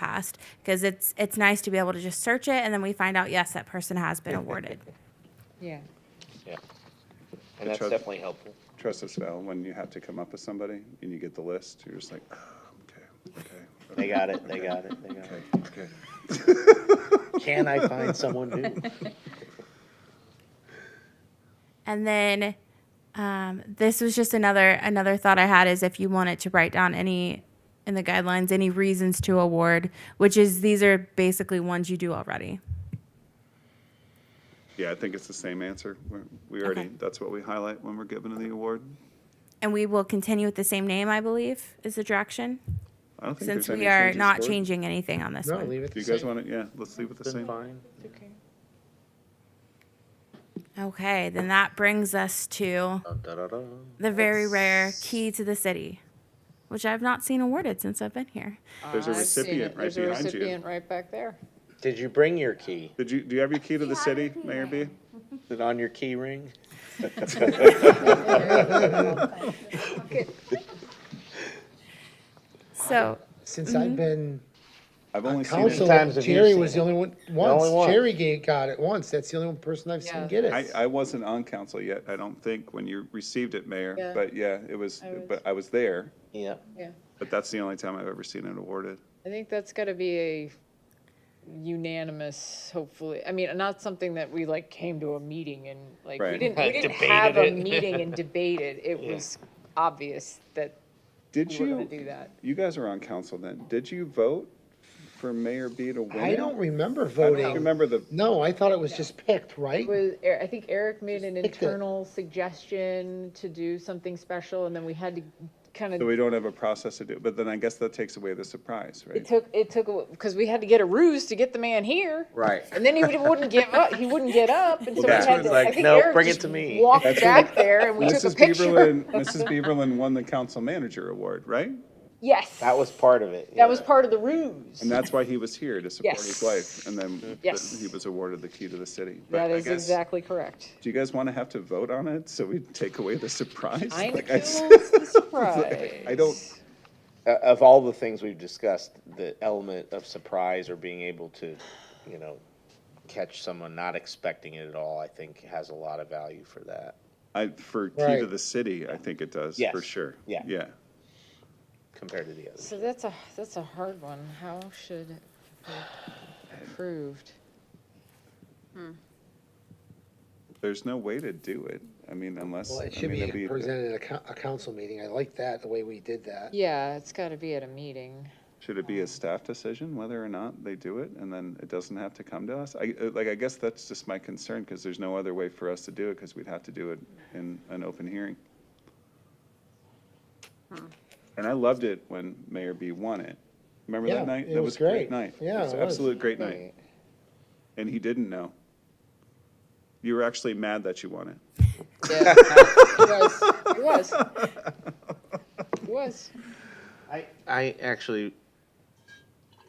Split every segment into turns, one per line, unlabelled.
fast because it's it's nice to be able to just search it and then we find out yes that person has been awarded.
Yeah.
Yeah. And that's
Trust-
definitely helpful.
Trust us, Val, when you have to come up with somebody and you get the list, you're just like, "Ah, okay, okay.
They
okay,
got it, they
okay,
got it, they got
Okay,
it.
okay.
Can I find someone new?
And then um, this was just another another thought I had is if you wanted to write down any in the guidelines any reasons to award, which is these are basically ones you do already.
Yeah, I think it's the same answer. We're- We already, that's what we highlight when we're given the award.
And we will continue with the same name, I believe, is the direction,
I don't think
since
there's any
we are
changes
not
to it.
changing anything on this
No,
one.
leave it
Do
the
you guys
same.
want to, yeah, let's leave it the
It's been
same.
fine.
Okay.
Okay, then that brings us to
Dun, dun, dun, dun.
the very rare key to the city, which I've not seen awarded since I've been here.
There's a
I've
recipient
seen
right behind
it. There's a
you.
recipient right back there.
Did you bring your key?
Did you, do you have your key to the city, Mayor B?
Is it on your key ring?
So,
Since
Mm-hmm.
I've been
I've
on
only seen
council,
it,
times have you
Jerry
seen
was
it?
the only one,
only
once,
one.
Jerry ga- got it once. That's the only one person I've
Yeah.
seen get
I,
it.
I wasn't on council yet, I don't think, when you received it, Mayor.
Yeah.
But yeah, it was,
I was-
but I was there,
Yeah.
Yeah.
but that's the only time I've ever seen it awarded.
I think that's gotta be a unanimous, hopefully, I mean, not something that we like came to a meeting and like, we
Right.
didn't, we didn't
Debated
have a
it.
meeting and debated. It was obvious that
Did
we were gonna do
you,
that.
you guys were on council then, did you vote for Mayor B to win?
I
it?
don't remember
I don't
voting.
remember the,
No, I thought it was just picked, right?
Was, Er- I think Eric made an
pick the-
internal suggestion to do something special and then we had to kind
so
of,
we don't have a process to do, but then I guess that takes away the surprise,
it
right?
took, it took, because we had to get a ruse to get the man here.
Right.
And then he would- wouldn't give up. He wouldn't get up, and so we
that's when
had to.
it's like,
I think
"No,
Eric
bring it
just
to me."
Walked
That's
back
when
there, and we took
Mrs.
a picture.
Bieberlin, Mrs. Bieberlin won the council manager award, right?
Yes,
That was part of it.
that was part of the ruse.
And that's why he was here, to support his
Yes.
wife, and then th-
Yes.
he was awarded the key to the city. But
That
I
is
guess-
exactly correct.
Do you guys want to have to vote on it, so we take away the surprise?
I
Like I s-
knows the surprise.
I don't-
Uh, Of all the things we've discussed, the element of surprise or being able to, you know, catch someone not expecting it at all, I think has a lot of value for that.
I, for key to
Right.
the city, I think it does,
Yes.
for sure.
Yeah.
Yeah.
compared to the others.
So that's a that's a hard one. How should it be approved?
There's no way to do it, I mean, unless.
Well,
I
it should
mean,
be
it'd
presented at a, co- a council meeting. I like that, the way we did that.
Yeah, it's got to be at a meeting.
Should it
Um,
be a staff decision whether or not they do it, and then it doesn't have to come to us? I, uh, like, I guess that's just my concern, because there's no other way for us to do it, because we'd have to do it in an open hearing.
Hmm.
And I loved it when Mayor B won it. Remember
Yeah,
that night?
it
That
was
a great
great.
night. It
Yeah,
was
it
an
was.
absolute great night. And he didn't know. You were actually mad that you won it.
Yeah, it was. It was. It was.
I, I actually,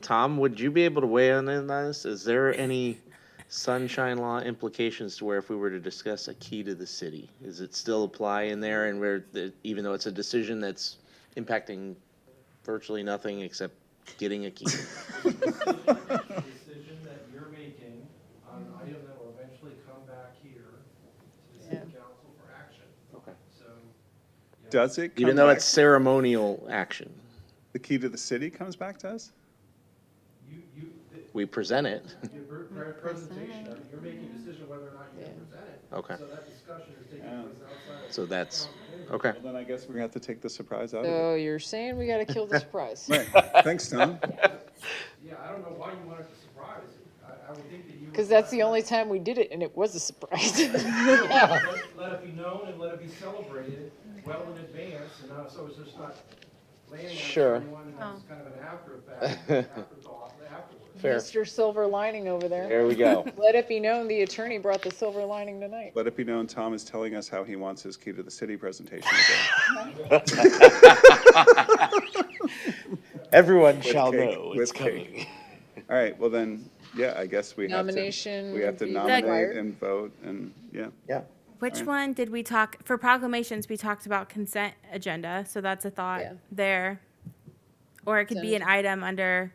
Tom, would you be able to weigh in on this? Is there any sunshine law implications to where if we were to discuss a key to the city, is it still apply in there and where, the- even though it's a decision that's impacting virtually nothing except getting a key?
decision that you're making on an item that will eventually come back here to the city council for action.
Okay.
So,
Does it come
Even though
back,
it's ceremonial action,
the key to the city comes back to us?
you, you, the-
we present it.
your pre- pre- presentation, I mean, you're making a decision whether or not you're gonna present it.
Okay.
So that discussion is taking place outside of.
So that's, okay.
Well, then I guess we're gonna have to take the surprise out of
So you're saying we got to kill the surprise?
it. Right, thanks, Tom.
Yeah, I don't know why you wanted to surprise. I, I would think that you. would
Because that's
let-
the only time we did it, and it was a surprise.
Let let it be known and let it be celebrated well in advance, and not- so it's just not landing
Sure.
on someone and
Oh.
it's kind of an after effect, afterthought afterwards.
Fair.
Mr. Silver Lining over there.
There we go.
Let it be known the attorney brought the silver lining tonight.
Let it be known, Tom is telling us how he wants his key to the city presentation today.
Everyone shall
cake,
know
with
it's
cake.
coming.
All right, well then, yeah, I guess we have to.
Nomination
We have to
would be
nominate
required.
and vote and, yeah.
Yeah.
which one did we talk for proclamations? We talked about consent agenda, so that's a thought
Yeah.
there. Or it could be an item under